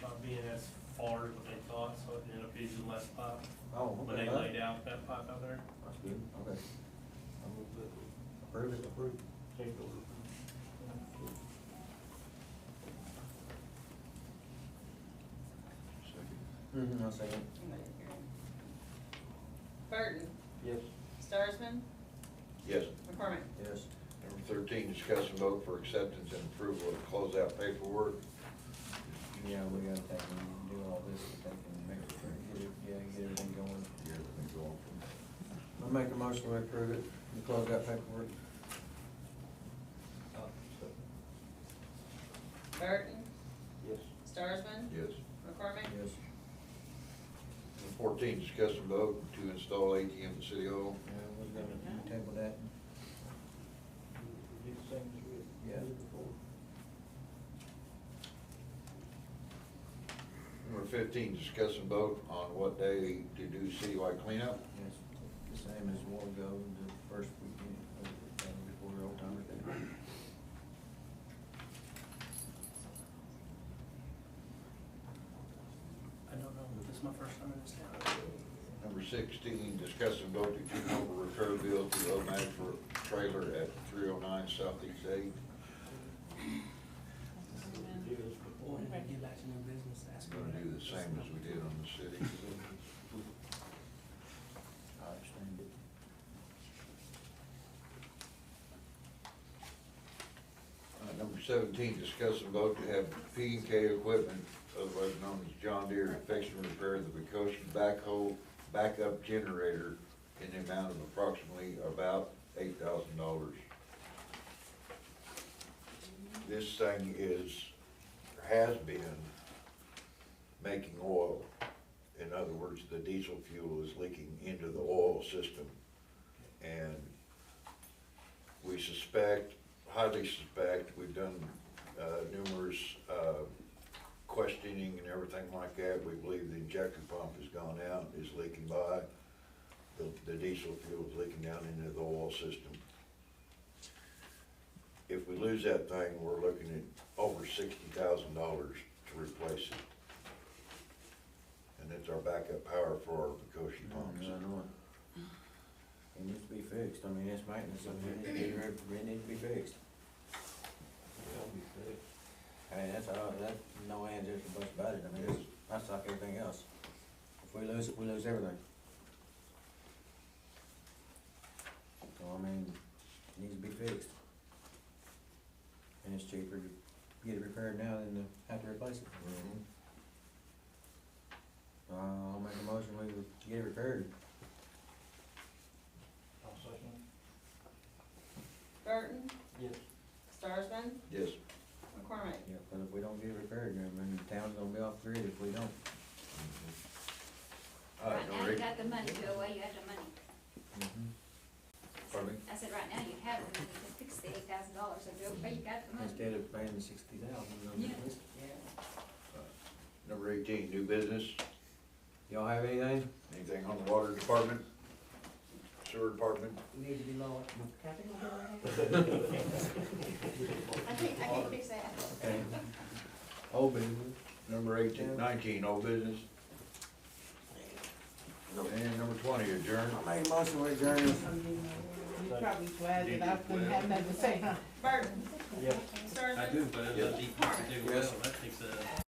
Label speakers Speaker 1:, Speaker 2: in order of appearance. Speaker 1: far uh, as what they thought, so it ended up using less pipe
Speaker 2: Oh,
Speaker 1: when
Speaker 2: okay,
Speaker 1: they
Speaker 2: that-
Speaker 1: laid out that pipe out there.
Speaker 2: that's good, okay. I move that we Approve it, approve. Mm-hmm, I'll second.
Speaker 3: Burton,
Speaker 2: Yes.
Speaker 3: Starsman,
Speaker 4: Yes.
Speaker 3: McCormick.
Speaker 2: Yes.
Speaker 4: Number thirteen, discuss and vote for acceptance and approval of closeout paperwork.
Speaker 2: Yeah, we gotta take and do all this, take and make sure, get it, yeah, get everything going. I make a motion to approve it, the closeout paperwork.
Speaker 3: Burton,
Speaker 2: Yes.
Speaker 3: Starsman,
Speaker 4: Yes.
Speaker 3: McCormick.
Speaker 2: Yes.
Speaker 4: Number fourteen, discuss and vote to install ATM at City Hall.
Speaker 2: Yeah, we're gonna table that. Yeah.
Speaker 4: Number fifteen, discuss and vote on what day to do citywide cleanup.
Speaker 2: Yes, the same as we'll go the first weekend of the, uh, before Old Timer Day.
Speaker 1: I don't know, this is my first time in this town.
Speaker 4: Number sixteen, discuss and vote to keep over repair bill to the Omac for trailer at three oh nine Southeast Eight.
Speaker 1: Boy, if I get back to new business, that's
Speaker 4: We're Gonna do the same as we did on the city.
Speaker 2: I understand it.
Speaker 4: Uh, Number seventeen, discuss and vote to have P and K Equipment, otherwise known as John Deere, fix and repair the Becosha backhoe backup generator in the amount of approximately about eight thousand dollars. This thing is, has been making oil. In other words, the diesel fuel is leaking into the oil system. And we suspect, highly suspect, we've done uh, numerous uh, questioning and everything like that. We believe the injector pump has gone out, is leaking by. The- The diesel fuel is leaking down into the oil system. If we lose that thing, we're looking at over sixty thousand dollars to replace it. And it's our backup power for our Mikoshi pumps.
Speaker 2: I know it. It needs to be fixed, I mean, it's maintenance, I mean, it needs to be- it needs to be fixed. I mean, that's all, that, no ands, ifs, or buts about it, I mean, it's, that's like everything else. If we lose it, we lose everything. So, I mean, it needs to be fixed. And it's cheaper to get it repaired now than to have to replace it.
Speaker 4: Mhm.
Speaker 2: Uh, I'll make a motion, we get it repaired.
Speaker 3: Burton,
Speaker 2: Yes.
Speaker 3: Starsman,
Speaker 4: Yes.
Speaker 3: McCormick.
Speaker 2: Yeah, but if we don't get it repaired, then I mean, the town's gonna be off the grid if we don't.
Speaker 4: All right,
Speaker 5: Right now,
Speaker 4: Nori.
Speaker 5: you got the money, go away, you have the money.
Speaker 4: Pardon me?
Speaker 5: I said, right now, you have the money to fix the eight thousand dollars, so go away, you got the money.
Speaker 2: Instead of paying the sixty thousand.
Speaker 5: Yeah.
Speaker 4: Number eighteen, new business,
Speaker 2: Y'all have anything?
Speaker 4: anything on the water department, sewer department?
Speaker 6: Need to be lower.
Speaker 5: I think, I can fix that.
Speaker 2: Okay. Old business.
Speaker 4: Number eighteen, nineteen, old business, and number twenty, adjourn.
Speaker 2: I made a motion with adjourned.
Speaker 6: You probably glad that I couldn't have nothing to say, huh?
Speaker 3: Burton.
Speaker 2: Yeah.
Speaker 3: Starsman.
Speaker 1: I do, but it doesn't equal to do well,
Speaker 2: Yes.
Speaker 1: that takes a.